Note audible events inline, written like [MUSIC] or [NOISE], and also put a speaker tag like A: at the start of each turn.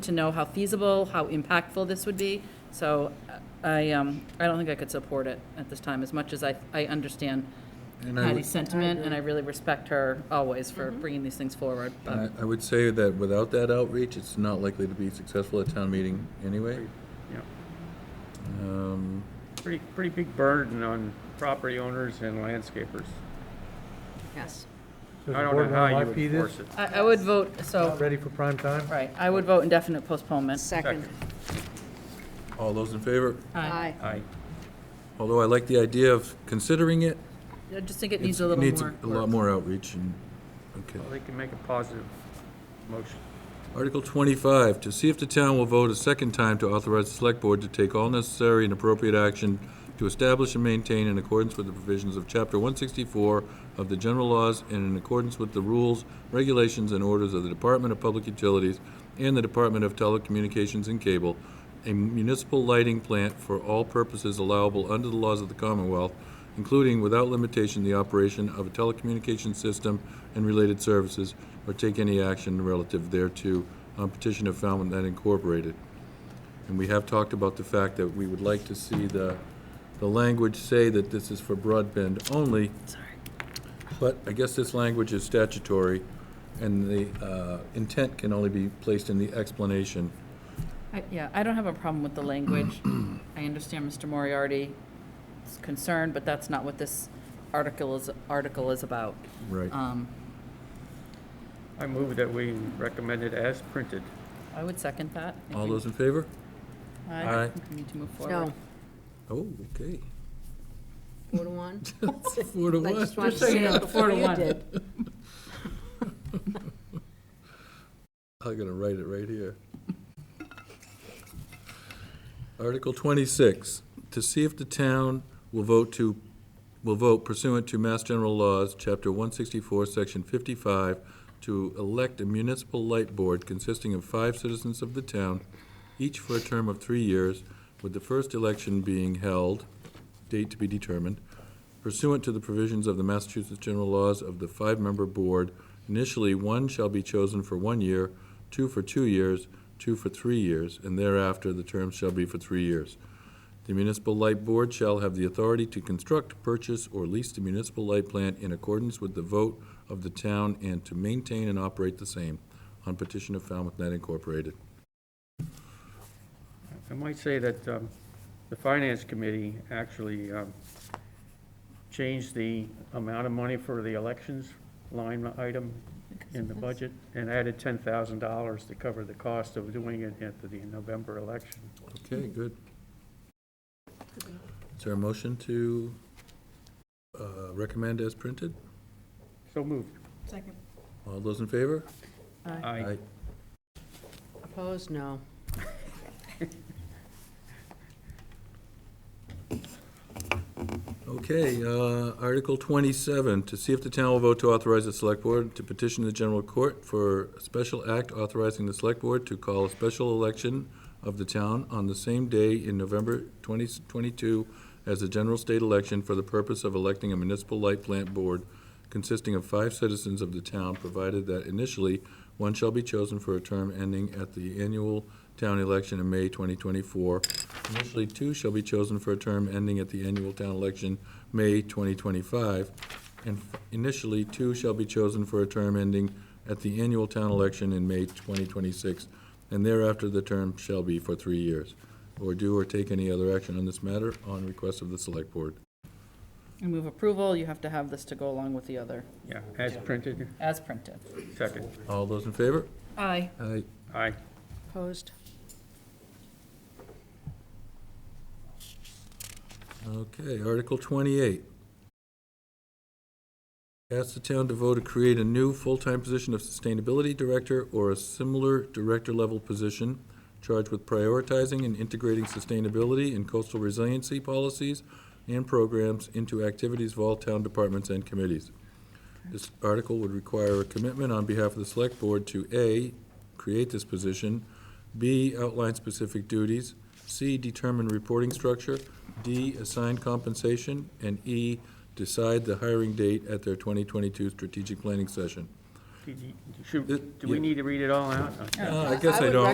A: to know how feasible, how impactful this would be. So uh, I, um, I don't think I could support it at this time, as much as I, I understand
B: And I
A: Patty's
B: would-
A: sentiment, and I really respect her always for bringing these things forward.
B: I
A: But
B: I would say that without that outreach, it's not likely to be successful at town meeting anyway.
C: Yeah,
B: Um,
C: pretty, pretty big burden on property owners and landscapers.
D: Yes.
E: So
C: I
E: the
C: don't know
E: board
C: how
E: wanna
C: you would
E: IP this?
C: force it.
A: I, I would vote,
E: Not
A: so,
E: Ready for prime time?
A: right, I would vote indefinite postponement.
D: Second.
B: All those in favor?
D: Aye.
C: Aye.
B: Although I like the idea of considering it.
A: I uh, just think it
B: it's-
A: needs a
B: it
A: little
B: needs
A: more.
B: A lot more outreach and, okay.
C: Well, they can make a positive motion.
B: Article 25, to see if the town will vote a second time to authorize the Select Board to take all necessary and appropriate action to establish and maintain in accordance with the provisions of Chapter 164 of the General Laws and in accordance with the rules, regulations, and orders of the Department of Public Utilities and the Department of Telecommunications and Cable, a municipal lighting plant for all purposes allowable under the laws of the Commonwealth, including without limitation the operation of a telecommunications system and related services, or take any action relative thereto on petition of Falmouth Net Incorporated. And we have talked about the fact that we would like to see the, the language say that this is for broadband only. Sorry. But I guess this language is statutory, and the uh, intent can only be placed in the explanation.
A: I- Yeah, I don't have a problem with the language.
B: [CLEARS THROAT]
A: I understand Mr. Moriarty's concern, but that's not what this article is, article is about.
B: Right.
A: Um,
C: I move that we recommend it as printed.
A: I would second that. I
B: All
A: think-
B: those in favor?
A: I
B: Aye.
A: think we need to move forward.
D: No,
B: Oh, okay.
D: four to one.
B: Four to
D: [LAUGHS] I
B: one.
D: just wanted to
A: so you
D: say
A: know,
D: that
A: four
D: before
A: to
D: you
A: one.
D: did.
B: [LAUGHS] I'm gonna write it right here. Article twenty-six, to see if the town will vote to, will vote pursuant to Mass General Laws, Chapter one sixty-four, Section fifty-five, to elect a municipal light board consisting of five citizens of the town, each for a term of three years, with the first election being held, date to be determined, pursuant to the provisions of the Massachusetts General Laws of the five-member board, initially one shall be chosen for one year, two for two years, two for three years, and thereafter the terms shall be for three years. The municipal light board shall have the authority to construct, purchase, or lease the municipal light plant in accordance with the vote of the town and to maintain and operate the same, on petition of Falmouth Net Incorporated.
C: I might say that um, the Finance Committee actually um, changed the amount of money for the elections line item in the budget and added $10,000 to cover the cost of doing it at the November election.
B: Okay, good. Is there a motion to uh, recommend as printed?
C: So moved.
B: All those in favor?
C: Aye.
D: Opposed, no.
B: Okay, uh, Article 27, to see if the town will vote to authorize the Select Board to petition the General Court for a special act authorizing the Select Board to call a special election of the town on the same day in November 2022 as the general state election for the purpose of electing a municipal light plant board consisting of five citizens of the town, provided that initially, one shall be chosen for a term ending at the annual town election in May 2024. Initially, two shall be chosen for a term ending at the annual town election, May 2025. And f- initially, two shall be chosen for a term ending at the annual town election in May 2026, and thereafter the term shall be for three years, or do or take any other action on this matter on request of the Select Board.
A: I move approval, you have to have this to go along with the other,
C: Yeah, as printed,
A: as printed.
C: second.
B: All those in favor?
A: Aye.
B: Aye.
C: Aye.
D: Opposed?
B: Okay, Article 28. Ask the town to vote to create a new full-time position of Sustainability Director or a similar director-level position charged with prioritizing and integrating sustainability and coastal resiliency policies and programs into activities of all town departments and committees. This article would require a commitment on behalf of the Select Board to A, create this position, B, outline specific duties, C, determine reporting structure, D, assign compensation, and E, decide the hiring date at their 2022 strategic planning session.
C: Did you- Should,
B: It-
C: do we
B: yeah.
C: need to read it all out?
B: Uh, I guess I
D: would
B: don't.